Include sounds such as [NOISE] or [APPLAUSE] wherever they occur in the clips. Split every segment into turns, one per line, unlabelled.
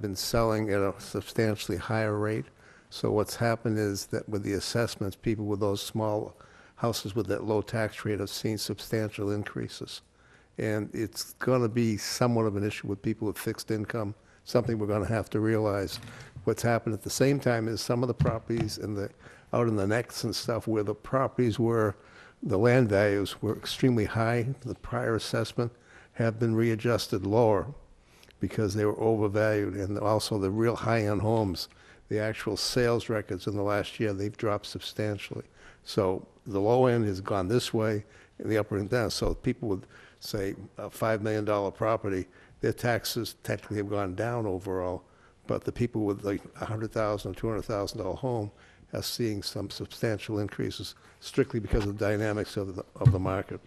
been selling at a substantially higher rate. So what's happened is that with the assessments, people with those small houses with that low tax rate have seen substantial increases. And it's going to be somewhat of an issue with people with fixed income, something we're going to have to realize. What's happened at the same time is some of the properties in the, out in the necks and stuff where the properties were, the land values were extremely high, the prior assessment have been readjusted lower because they were overvalued, and also the real high-end homes, the actual sales records in the last year, they've dropped substantially. So the low end has gone this way, and the upper end down. So people with, say, a $5 million property, their taxes technically have gone down overall, but the people with like a $100,000, $200,000 home are seeing some substantial increases strictly because of the dynamics of the, of the market.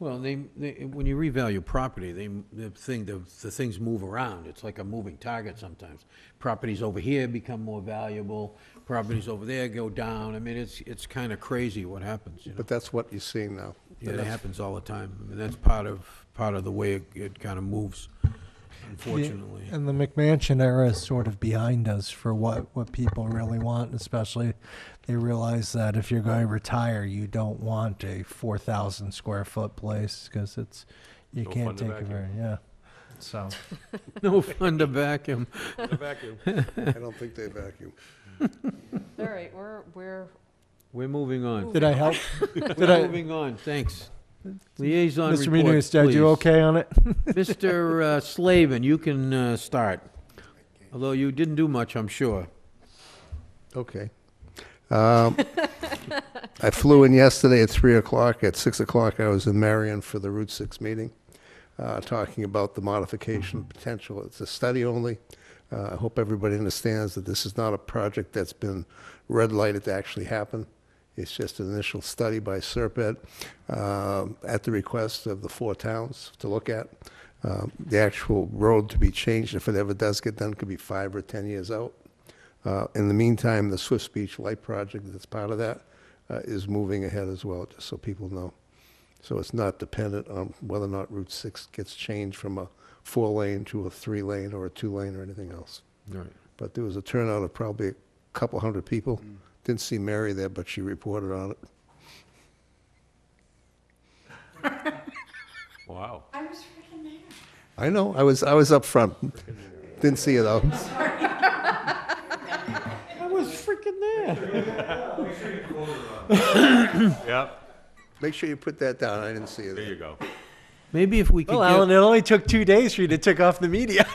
Well, they, they, when you revalue property, they, the thing, the, the things move around. It's like a moving target sometimes. Properties over here become more valuable, properties over there go down. I mean, it's, it's kind of crazy what happens, you know?
But that's what you're seeing now.
Yeah, that happens all the time. I mean, that's part of, part of the way it, it kind of moves, unfortunately.
And the McMansion era is sort of behind us for what, what people really want, and especially they realize that if you're going to retire, you don't want a 4,000 square foot place because it's, you
No fun
can't
to
take it
vacuum.
very, yeah. So,
[LAUGHS] No fun to vacuum.
The vacuum.
I don't think they vacuum.
All right, we're, we're,
We're moving on.
did I help? Did
We're
I,
moving on, thanks. Liaison reports,
Mr.
please.
Menounos, did I do okay on it?
Mr. uh, Slavin, you can uh, start. Although you didn't do much, I'm sure.
Okay. Um, I flew in yesterday at 3 o'clock. At 6 o'clock, I was in Marion for the Route 6 meeting, uh, talking about the modification potential. It's a study only. Uh, I hope everybody understands that this is not a project that's been red lighted to actually happen. It's just an initial study by Serpent um, at the request of the four towns to look at. Um, The actual road to be changed, if it ever does get done, could be five or 10 years out. Uh, In the meantime, the Swift Beach Light Project that's part of that uh, is moving ahead as well, just so people know. So it's not dependent on whether or not Route 6 gets changed from a four-lane to a three-lane or a two-lane or anything else.
All right.
But there was a turnout of probably a couple hundred people.
Mm.
Didn't see Mary there, but she reported on it.
[LAUGHS] Wow.
I know, I was, I was up front. Didn't see you though.
I was freaking there.
Yep,
Make sure you put that down, I didn't see you
there
there.
you go.
Maybe if we could
Well, Alan,
get,
it only took two days for you to take off the media.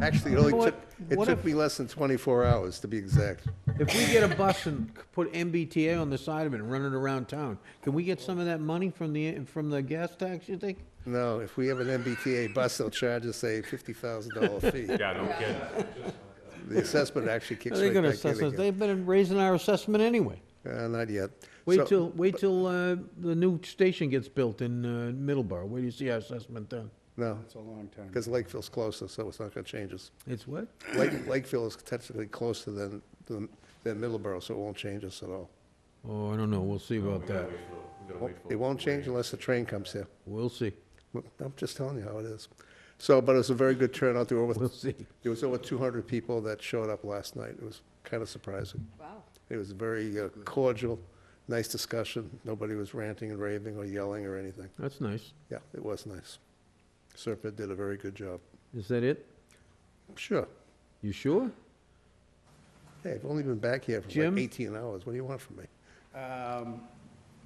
Actually, it only
What-
took, it
what
took
if-
me less than 24 hours, to be exact.
if we get a bus and c- put MBTA on the side of it and run it around town, can we get some of that money from the, from the gas tax, you think?
No, if we have an MBTA bus, they'll charge us a $50,000 fee.
Yeah, no kidding.
The assessment actually kicks
They're
right
gonna
back
assess
in
us,
again.
they've been raising our assessment anyway.
Uh, Not yet. So-
Wait till, wait till, uh, the new station gets built in, uh, Middleborough, where do you see our assessment done?
No. It's a long time. Because Lakeville's closer, so it's not going to change us.
It's what?
[CLEARS THROAT] Lake- Lakeville is technically closer than, than than Middleborough, so it won't change us at all.
Oh, I don't know, we'll see about that,
It won't change unless the train comes here.
we'll see,
Well, I'm just telling you how it is. So, but it was a very good turnout. There were,
we'll
over-
see.
there was over 200 people that showed up last night. It was kind of surprising.
wow.
It was very uh, cordial, nice discussion. Nobody was ranting and raving or yelling or anything.
That's nice,
Yeah, it was nice. Serpent did a very good job.
is that it?
Sure.
You sure?
Hey, I've only been back here for
Jim?
like 18 hours. What do you want from me?
Um,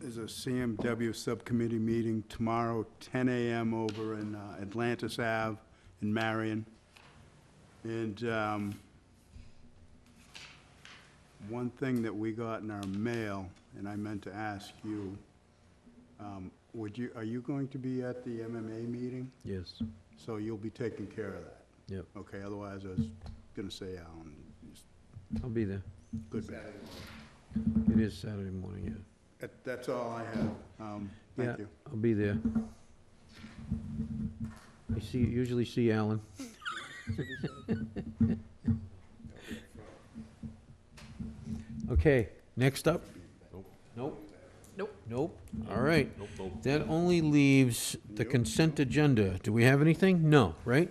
There's a CMW Subcommittee meeting tomorrow, 10 a.m. over in uh, Atlantis Ave in Marion. And um, one thing that we got in our mail, and I meant to ask you, um, would you, are you going to be at the MMA meeting?
Yes,
So you'll be taking care of that?
yep,
Okay, otherwise I was going to say, Alan, just
I'll be there,
good bad.
it is Saturday morning, yeah.
That- That's all I have. Um,
Yeah,
Thank you.
I'll be there. I see, usually see Alan. [LAUGHS] Okay, next up? Nope.
Nope.
Nope, all right. That only leaves the consent agenda. Do we have anything? No, right?